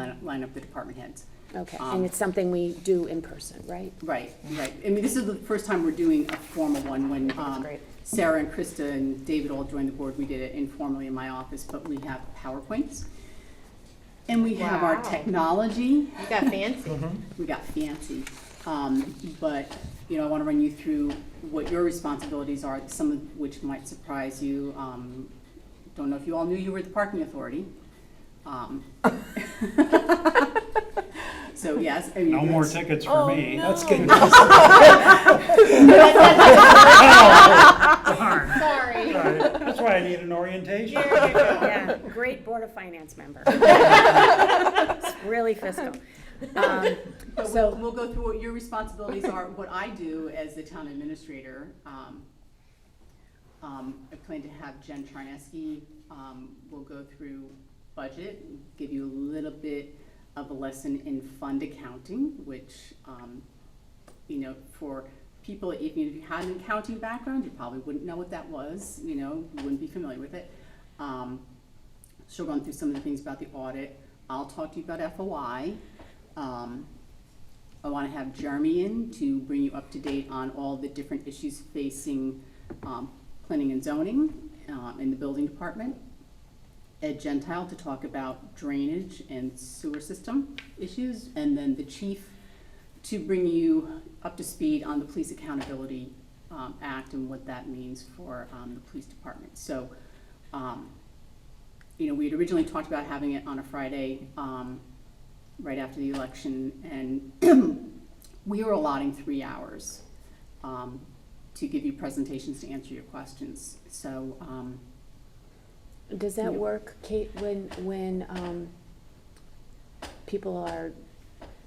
line up the department heads. Okay, Um, and it's something we do in person, right? Right, right. I mean, this is the first time we're doing a formal one. When that's um, great. Sarah and Krista and David all joined the board, we did it informally in my office, but we have PowerPoints. And we have our Wow. technology. You got fancy. we got fancy. Um, but, you know, I wanna run you through what your responsibilities are, some of which might surprise you. Um, don't know if you all knew you were the parking authority. Um, So, yes, I mean. No more that's- tickets for me. That's good. Darn. Sorry. All right. That's why I need an orientation. Yeah, great Board of Finance member. It's Really fiscal. Um, But we'll, So- we'll go through what your responsibilities are, what I do as the town administrator. Um, um, I plan to have Jen Charneski, um, will go through budget, give you a little bit of a lesson in fund accounting, which, um, you know, for people, even if you had an accounting background, you probably wouldn't know what that was, you know, you wouldn't be familiar with it. Um, she'll run through some of the things about the audit. I'll talk to you about FOI. Um, I want to have Jeremy in to bring you up to date on all the different issues facing um, planning and zoning um, in the building department. Ed Gentile to talk about drainage and sewer system issues, and then the chief to bring you up to speed on the Police Accountability um, Act and what that means for um, the police department. So, um, you know, we had originally talked about having it on a Friday, um, right after the election, and we were allotting three hours, um, to give you presentations to answer your questions. So, um, Does that work, Kate, when, when um, people are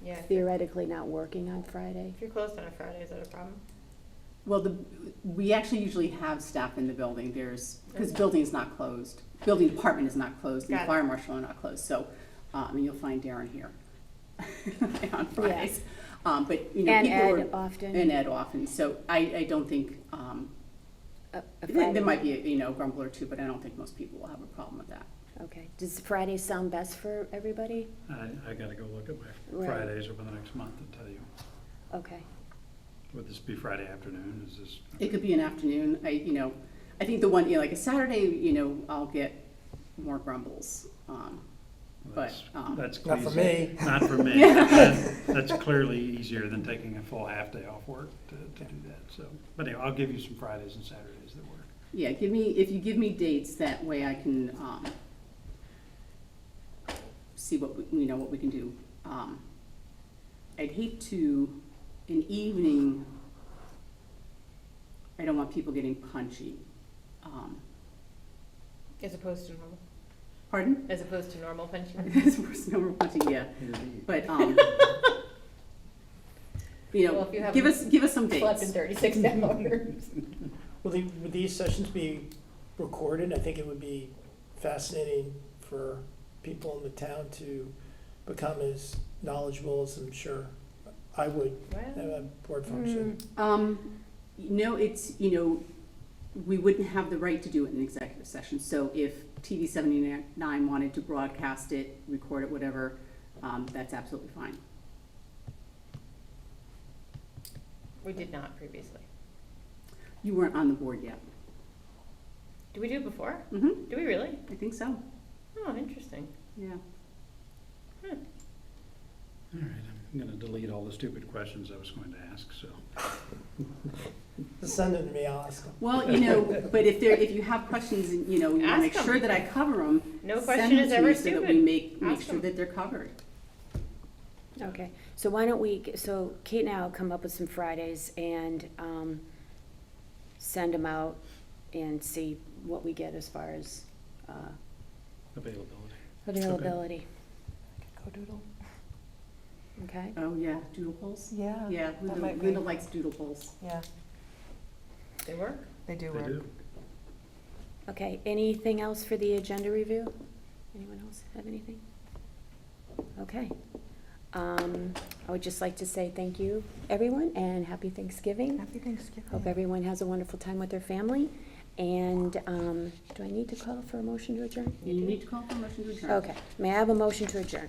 Yeah. If theoretically not working on Friday? you're closed on a Friday, is that a problem? well, the, we actually usually have staff in the building, there's, because building is not closed. Building department is not closed, and the Got it. fire marshal are not closed, so, um, and you'll find Darren here on Fridays. Um, but, you know, And people are. Ed often? And Ed often, so I, I don't think, um, A- a There there Friday? might be, you know, a grumble or two, but I don't think most people will have a problem with that. Okay, does Friday sound best for everybody? I, I gotta go look at my Right. Fridays over the next month to tell you. Okay, Would this be Friday afternoon? Is this? It could be an afternoon, I, you know, I think the one, you know, like a Saturday, you know, I'll get more grumbles. Um, But, that's- um, That's. Not for easy. me. Not for me. That- That's clearly easier than taking a full half day off work to, to do that, so. But anyway, I'll give you some Fridays and Saturdays that work. Yeah, give me, if you give me dates, that way I can, um, see what, we- you know, what we can do. Um, I'd hate to, an evening, I don't want people getting punchy. Um, As opposed to normal. Pardon? As opposed to normal pension. It's worse than we're punching, yeah. But, um, you Well, if you know, have give us, give us some Slept dates. in thirty-six hours. Will the, would these sessions be recorded? I think it would be fascinating for people in the town to become as knowledgeable as I'm sure I would at Wow. a board function. Um, no, it's, you know, we wouldn't have the right to do it in executive session. So if TV seventy-nine wanted to broadcast it, record it, whatever, um, that's absolutely fine. We did not previously. You weren't on the board yet. Did we do it before? Mm-hmm, Do we really? I think so, Oh, interesting. Hmm. yeah. All right, I'm gonna delete all the stupid questions I was going to ask, so. Send them to me, I'll ask them. Well, you know, but if there, if you have questions, and, you know, you wanna Ask make sure 'em. that I cover them. No question is ever So that we stupid. make, make Ask sure 'em. that they're covered. okay. So why don't we, g- so Kate and I will come up with some Fridays and um, send them out and see what we get as far as uh, Availability. availability, okay? Oh, yeah, doodle polls? Yeah. Yeah, that Linda, might be- Linda likes doodle polls. Yeah, They work? they do They work. do. Okay, anything else for the agenda review? Anyone else have anything? Okay. Um, I would just like to say thank you, everyone, and happy Thanksgiving. Happy Thanksgiving. Hope everyone has a wonderful time with their family. And, um, do I need to call for a motion to adjourn? You need to call for a motion to adjourn. Okay, may I have a motion to adjourn?